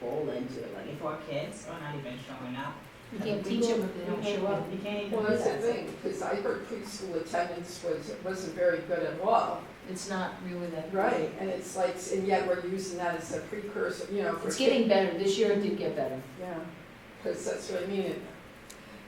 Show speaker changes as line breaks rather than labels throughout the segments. bowling to eleven.
Before kids are not even showing up.
You can't teach them if they don't show up.
You can't even
Well,
do
that's the
that.
thing, because I heard preschool attendance was, wasn't very good at all.
It's not really that.
Right, and it's like, and yet we're using that as a precursor, you know, for.
It's getting better, this year it did get better.
Yeah, because that's what I mean, and,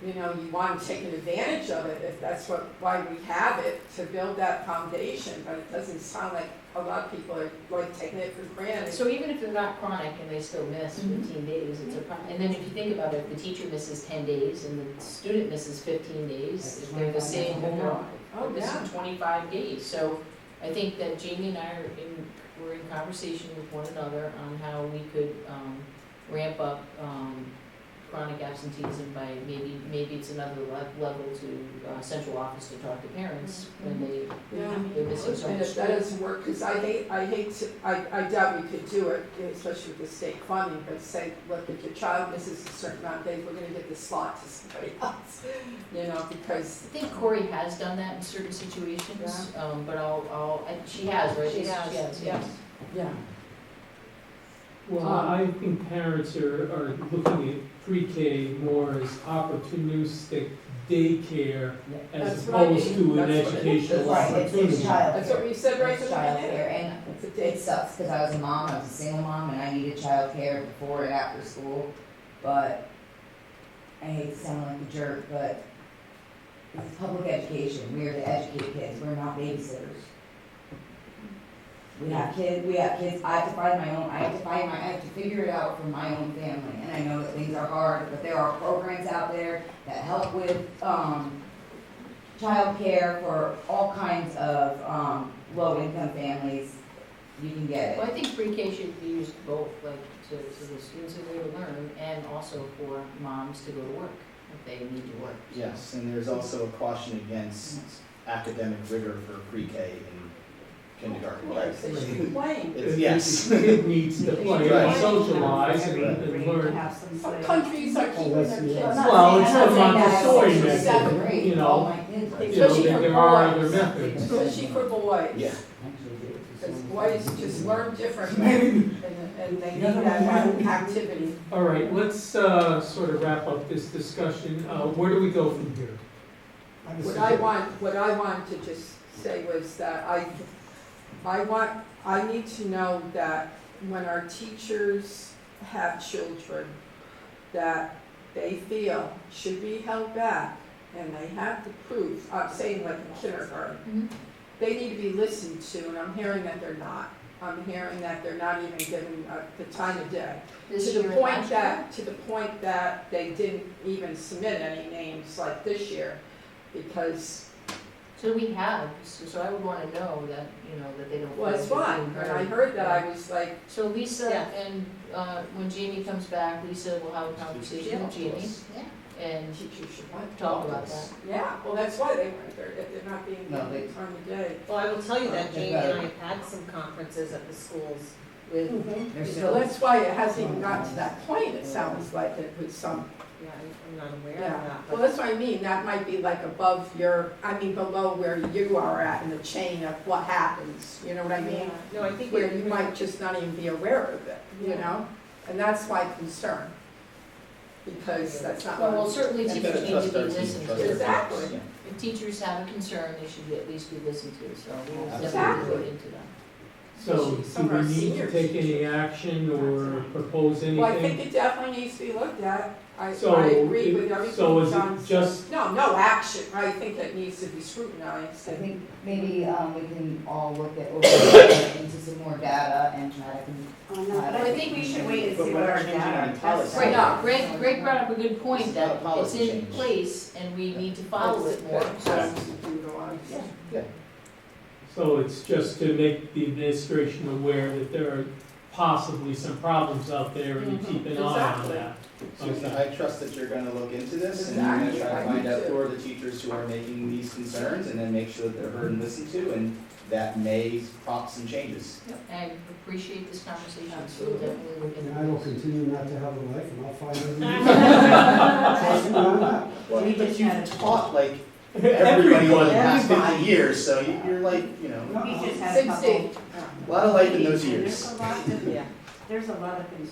you know, you want to take advantage of it, if that's what, why we have it, to build that foundation, but it doesn't sound like a lot of people are like taking it for granted.
So even if they're not chronic and they still miss
Mm-hmm.
fifteen days, it's a problem. And then if you think about it, if the teacher misses ten days and the student misses fifteen days, if they're the same homework,
Oh,
this
yeah,
is twenty-five days. So I think that Jamie and I are in, we're in conversation with one another on how we could, um, ramp up, um, chronic absenteeism by maybe, maybe it's another le- level to, uh, central office to talk to parents
Mm-hmm.
when they,
yeah.
they're missing so
And
much.
if that doesn't work, because I hate, I hate to, I, I doubt we could do it, especially with the state funding, but say, look, if your child misses a certain amount of days, we're gonna give the slot to somebody else, you know, because,
I think Corey has done that in certain situations, um, but I'll, I'll, I- she has, right?
She has,
yes.
yeah.
Well,
Um,
I think parents are, are looking at pre-K more as opportunistic daycare
That's
as
what I
opposed
mean.
to an
That's what it is.
educational
Right, it's,
opportunity.
it's child.
That's what you said right
It's
from the beginning.
childcare, and
It's a
it
day.
sucks, cause I was a mom, I was a single mom, and I needed childcare before and after school, but I hate to sound like a jerk, but it's public education, we are to educate kids, we're not babysitters. We have kids, we have kids, I have to find my own, I have to find my, I have to figure it out for my own family, and I know that things are hard, but there are programs out there that help with, um, childcare for all kinds of, um, low-income families, you can get
Well,
it.
I think pre-K should be used both, like, to, to the students that they would learn, and also for moms to go to work, if they need to work.
Yes, and there's also a caution against academic rigor for pre-K and kindergarten.
Well, They should be playing.
It's,
Yes.
yes.
Kid needs to play and
Right.
socialize and and learn.
Have some
Some
say.
countries are keeping their kids.
not
Well,
saying-
it's
I'm not saying
a
that.
Montessori
Sixth,
method,
seventh grade,
you know.
Oh,
all my kids are-
You know,
Especially
that
for
there are other
boys.
methods.
Especially for boys.
Yeah.
Because boys just learn differently and, and they need that one activity.
All right, let's, uh, sort of wrap up this discussion. Uh, where do we go from here?
What I want, what I wanted to just say was that I, I want, I need to know that when our teachers have children that they feel should be held back and they have the proof, I'm saying like in kindergarten, they need to be listened to and I'm hearing that they're not. I'm hearing that they're not even given uh, the time of day.
This
To the
year and
point
last year,
that, to the point that they didn't even submit any names like this year, because,
So we have, so, so I would wanna know that, you know, that they don't.
well, it's fine, when I heard that, I was like,
So Lisa
Yeah.
and, uh, when Jamie comes back, Lisa will have a conversation with Jamie, and
teachers should want to.
talk about that.
Yeah, well, that's why they weren't there, if they're not being
No, they-
given time of day.
Well, I will tell you that
Okay.
Jamie and I have had some conferences at the schools with,
Mm-hmm.
yeah,
They're
So
still,
that's why it hasn't even gotten to that point, it sounds like, it was some,
I- I'm not aware of
yeah.
that, but
Well, that's what I mean, that might be like above your, I mean, below where you are at in the chain of what happens, you know what I mean?
No, I think
Where you
you're-
might just not even be aware of it, you
Yeah.
know? And that's my concern, because that's not.
Well,
what-
well, certainly
You gotta
teachers need to
trust
be
our team,
listened
trust our
to.
teachers,
Exactly.
yeah.
If teachers have a concern, they should at least be listened to, so we'll definitely
Exactly.
look into that.
So do
Some of our
we need to
seniors.
take any action or propose anything?
Well, I think it definitely needs to be looked at. I,
So,
I agree with
it-
everything
so is it
John said.
just-
No, no action. I think it needs to be scrutinized.
I think maybe, um, we can all look at, look into some more data and try to. con-
But
uh,
I think we should wait
and
But we're changing our policy.
Right,
No.
Greg, Greg brought up a good point
It's not a
that it's
policy
in
change.
place and we need to follow it more.
That's brutalized.
Yeah.
So it's just to make the administration aware that there are possibly some problems out there and to keep an eye on
Exactly.
that.
Susan,
Okay.
I trust that you're gonna look into this and you're gonna try to find out who are the teachers who are making these concerns and then make sure that they're heard and listened to and that may prompt some changes.
I appreciate this conversation, so we'll
Absolutely.
definitely look into
And
it.
I will continue not to have a life, and I'll find everything. Trust me on that.
Well, but you've taught like everybody over
Everyone.
the past fifty years, so you- you're like, you know,
No, I'll-
Sixteen.
a lot of life in those years.
yeah.
There's a lot of things